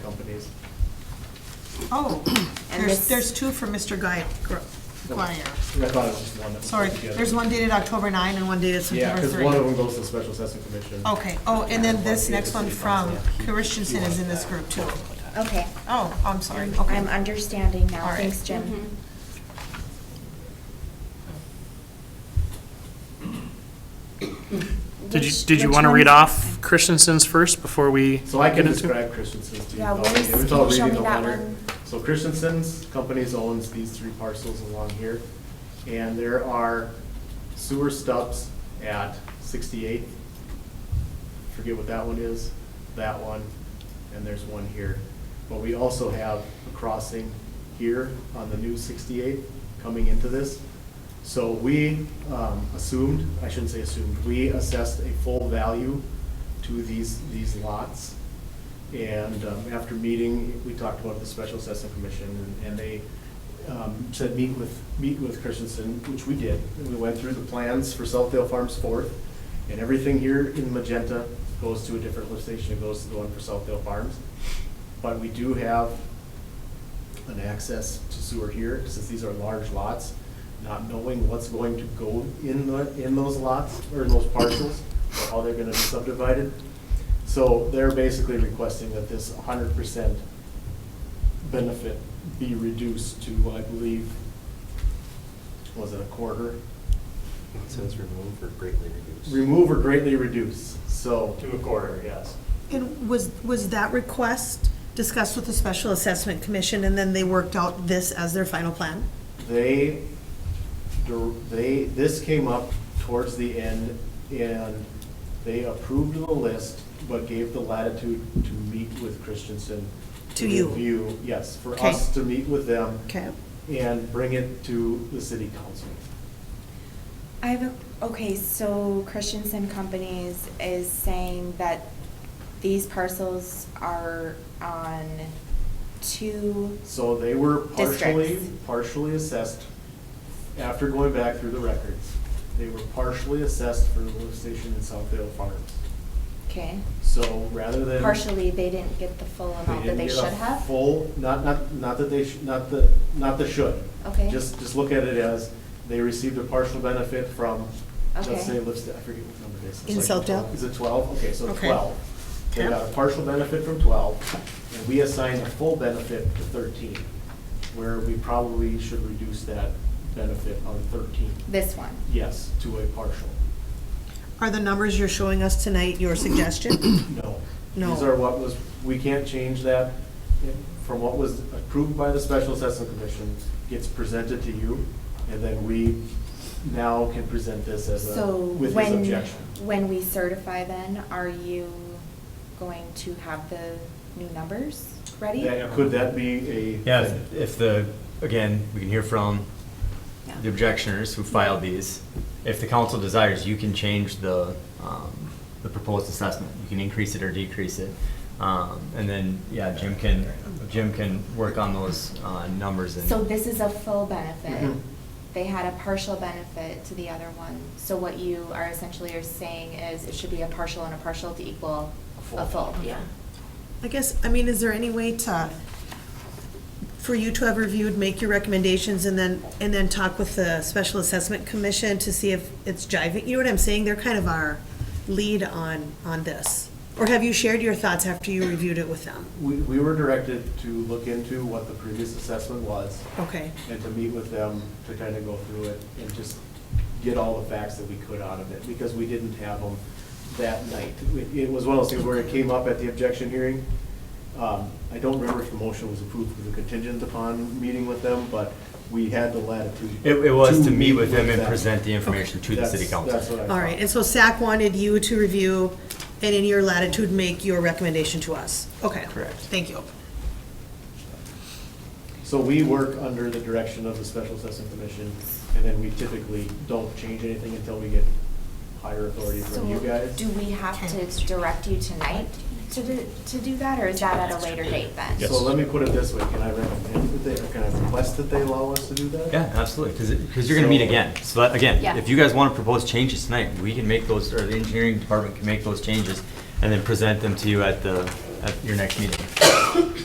days. Oh, And there's, this- there's two for Mr. Guy, Guyer. I thought it was just one. that was Sorry, put together. there's one dated October 9 and one dated Yeah, September because one of 3. them goes to the Special Assessment Commission. Okay, oh, and then this next one from Yeah. Christensen is in this group too. Okay. Oh, I'm sorry, I'm okay. understanding All now. right. Thanks, Jim. Did you, Which- did you which want to one read is- off Christensen's first before we? So I can get into- describe Christensen's to you. Yeah, though. where's- It was can all you show reading me the that letter. one? So Christensen's companies owns these three parcels along here, and there are sewer stubs at 68. Forget what that one is, that one, and there's one here. But we also have a crossing here on the new 68 coming into this. So we um, assumed, I shouldn't say assumed, we assessed a full value to these, these lots. And um, after meeting, we talked about the Special Assessment Commission, and- and they um, said, meet with, meet with Christensen, which we did. And we went through the plans for Southdale Farms Fourth, and everything here in magenta goes to a different lift station, it goes to the one for Southdale Farms. But we do have an access to sewer here, since these are large lots, not knowing what's going to go in the, in those lots, or in those parcels, or how they're gonna be subdivided. So they're basically requesting that this hundred percent benefit be reduced to, I believe, was it a quarter? It says remove or greatly reduce. Remove or greatly reduce, so. To a quarter, yes. And was, was that request discussed with the Special Assessment Commission and then they worked out this as their final plan? They, dir- they, this came up towards the end, and they approved the list, but gave the latitude to meet with Christensen. To you. Review, yes, for Okay. us to meet with them Okay, and bring it to the city council. I have, a okay, so Christensen Companies is saying that these parcels are on two, So they were partially, Districts. partially assessed, after going back through the records, they were partially assessed for the lift station in Southdale Farms. okay? So rather than. Partially, they didn't get the full amount that didn't they get a should have? Full, not, not, not that they, sh- not the, not the should. Okay. Just, just look at it as, they received a partial benefit from, Okay. let's say, let's, I forget what number it is. In It's like Southdale? 12. Is it twelve? Okay, so Okay. twelve. They Okay. got a partial benefit from twelve, and we assigned a full benefit to thirteen, where we probably should reduce that benefit on thirteen. This one? Yes, to a partial. are the numbers you're showing us tonight your suggestion? No. No. These are what was, we can't change that from what was approved by the Special Assessment Commission, gets presented to you, and then we now can present this as a, So with his when, objection. when we certify then, are you going to have the new numbers ready? That- Could that be a? Yeah, if- if the, again, we can hear from the objectioners who filed these. If the council desires, you can change the, um, the proposed assessment. You can increase it or decrease it. Um, And then, yeah, Jim can, Jim can work on those uh, numbers and. So this is a full benefit. Mhm. They had a partial benefit to the other one. So what you are essentially are saying is it should be a partial and a partial to equal a A full. full, yeah. I guess, I mean, is there any way to, for you to have reviewed, make your recommendations, and then, and then talk with the Special Assessment Commission to see if it's jiving? You know what I'm saying? They're kind of our lead on, on this. Or have you shared your thoughts after you reviewed it with them? We, we were directed to look into what the previous assessment was Okay, and to meet with them to kind of go through it and just get all the facts that we could out of it, because we didn't have them that night. It- It was one of those things where it came up at the objection hearing. Um, I don't remember if the motion was approved with a contingent upon meeting with them, but we had the latitude. It, it was to meet meet with them and present the them. information to the That's- city council. That's what I all thought. right. And so SAC wanted you to review, and in your latitude, make your recommendation to us. Okay. Correct. Thank you. So we work under the direction of the Special Assessment Commission, and then we typically don't change anything until we get higher authority So from you guys. do we have to direct you tonight to, do- to do that or is that at a later date then? So let me put it this way, can I recommend that they, or can I request that they allow us to do that? Yeah, absolutely, because, because you're gonna meet So- again. So that, again, Yeah. if you guys want to propose changes tonight, we can make those, or the engineering department can make those changes and then present them to you at the, at your next meeting.